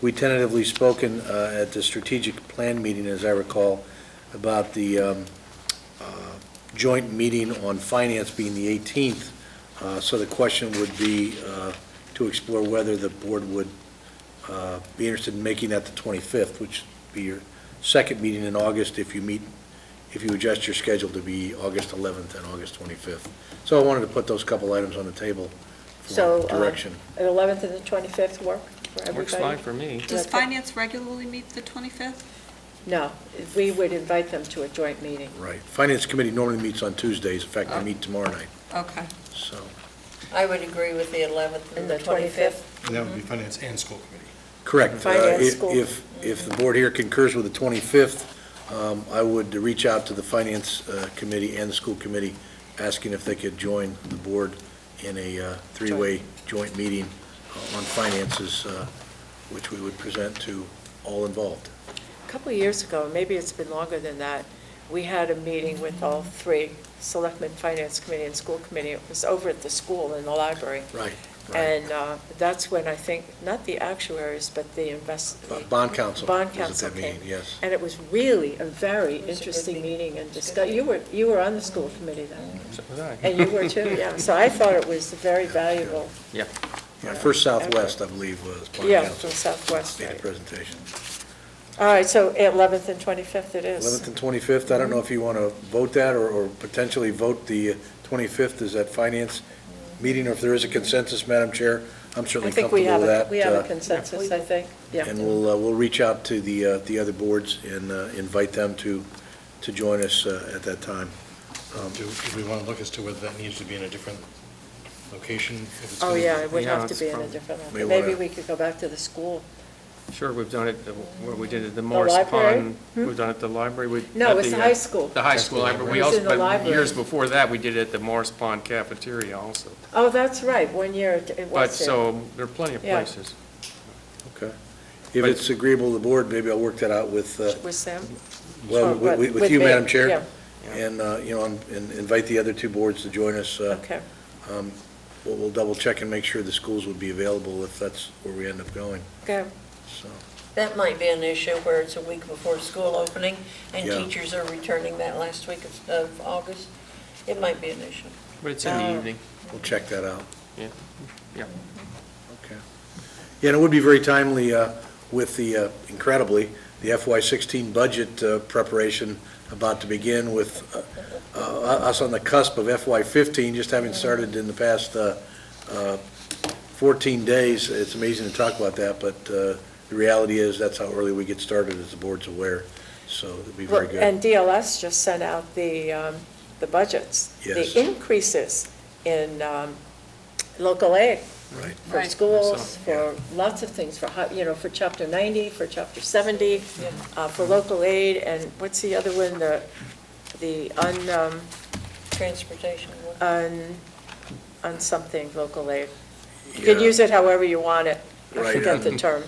we tentatively spoken uh, at the strategic plan meeting, as I recall, about the um, uh, joint meeting on finance being the 18th. Uh, So the question would be uh, to explore whether the board would uh, be interested in making that the 25th, which would be your second meeting in August if you meet, if you adjust your schedule to be August 11th and August 25th. So I wanted to put those couple items on the table So, for uh, direction. An 11th and the 25th work for everybody? Works fine for me. Does That's it. finance regularly meet the 25th? No, we would invite them to a joint meeting. Right. Finance Committee normally meets on Tuesdays. In fact, Oh. they meet tomorrow night, Okay. so. I would agree with the 11th and the 25th. And that would be finance and school committee. Correct. Uh, Finance, if- school. If, if the board here concurs with the 25th, um, I would reach out to the Finance uh, Committee and the School Committee, asking if they could join the board in a uh, three-way joint meeting uh, on finances, uh, which we would present to all involved. A couple of years ago, maybe it's been longer than that, we had a meeting with all three, Selectmen, Finance Committee, and School Committee. It was over at the school in the library. Right, right. And uh, that's when I think, not the actuaries, but the invest, Uh, Bo- Bond Council. Bond was at that Council meeting, came. Yes. and it was really a very It was a good interesting meeting. meeting and It was a good discuss, you were, you were on the school committee then, So was I. and you were too, yeah. So I thought it was very valuable, Yeah. Yeah, First Southwest, I believe, was Bond yeah, from Council. Southwest, Made a right. presentation. All right, so 11th and 25th it is. 11th and 25th, I don't know if you want to vote that, or- or potentially vote the 25th as that finance meeting, or if there is a consensus, Madam Chair, I'm I certainly think we comfortable have, with that. a we have uh, a consensus, I think, yeah. And we'll, uh, we'll reach out to the, uh, the other boards and uh, invite them to, to join us uh, at that time. Um, Do do we want to look as to whether that needs to be in a different location? if it's Oh, gonna be- yeah, it would Yeah, have to it's be in a probably- different, May one. maybe wanna- we could go back to the school. Sure, we've done it, uh, where we did it, the Morris library? Hmm? Pond, we've done it at the library. we- No, at it's the uh, high school. The high school library. We It was also, in the but library. years before that, we did it at the Morris Pond cafeteria also. Oh, that's right, one year it- it But, was there. so, there are plenty of Yeah. places. Okay? If it's agreeable to the board, maybe I'll work that out with, uh, With Sam? well, Or what- with- with you, me, Madam Chair. yeah, And, uh, you know, and and invite the other two boards to join us. uh, Okay, um, We'll, we'll double check and make sure the schools would be available if that's where we end up going, okay. so. That might be an issue where it's a week before school opening, and Yeah. teachers are returning that last week of- of August. It might be an issue. But it's in the Oh. evening, We'll check that out. yeah. Okay. Yeah, and it would be very timely uh, with the, uh, incredibly, the FY16 budget uh, preparation about to begin with uh, uh, us on the cusp of FY15, just having started in the past uh, uh, 14 days. It's amazing to talk about that, but uh, the reality is, that's how early we get started, as the board's aware, so it'd be very Well, And good. DLS just sent out the, um, the budgets. Yes. The increases in um, local aid Right. for Right. schools, Yeah. for lots of things, for, hi- you know, for Chapter 90, for Chapter 70, Yeah. uh, for local aid, and what's the other one, the, the un, um, Transportation. one. un, un something, local aid. You can Yeah. use it however you want it. I Right. forget the term,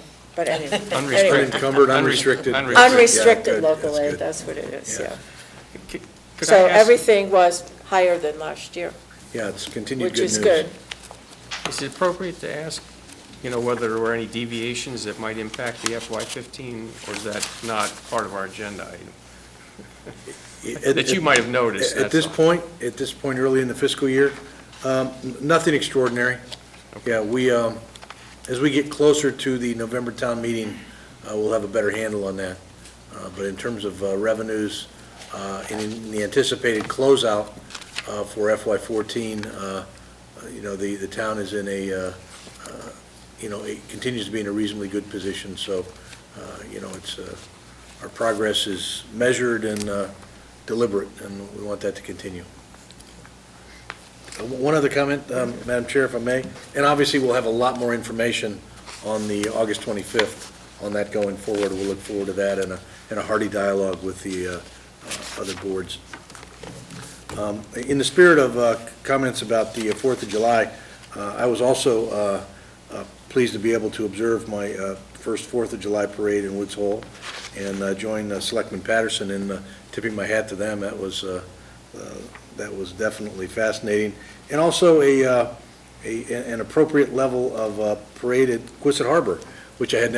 but anyway. Unrestricted. Anyway, Unencumbered, Unre- unrestricted. unrestricted. Yeah, Unrestricted good. local That's aid, good. that's what it is, Yeah. yeah. Could I So ask- everything was higher than last year, Yeah, it's continued which good news. is good. Is it appropriate to ask, you know, whether there were any deviations that might impact the FY15, or is that not part of our agenda item? It- That you it- might have noticed, At that's this all. point, at this point, early in the fiscal year, um, n- nothing extraordinary. Yeah, we, um, as we get closer to the November town meeting, uh, we'll have a better handle on that. Uh, But in terms of uh, revenues, uh, and in the anticipated closeout uh, for FY14, uh, uh, you know, the, the town is in a, uh, uh, you know, it continues to be in a reasonably good position, so, uh, you know, it's, uh, our progress is measured and uh, deliberate, and we want that to continue. Uh, One other comment, um, Madam Chair, if I may, and obviously, we'll have a lot more information on the August 25th on that going forward. We'll look forward to that and a, and a hearty dialogue with the uh, uh, other boards. Um, In the spirit of uh, comments about the Fourth of July, uh, I was also uh, uh, pleased to be able to observe my uh, first Fourth of July parade in Woods Hole and uh, join uh, Selectman Patterson in uh, tipping my hat to them. That was, uh, uh, that was definitely fascinating. And also a, uh, a- an appropriate level of uh, parade at Quistit Harbor, which I had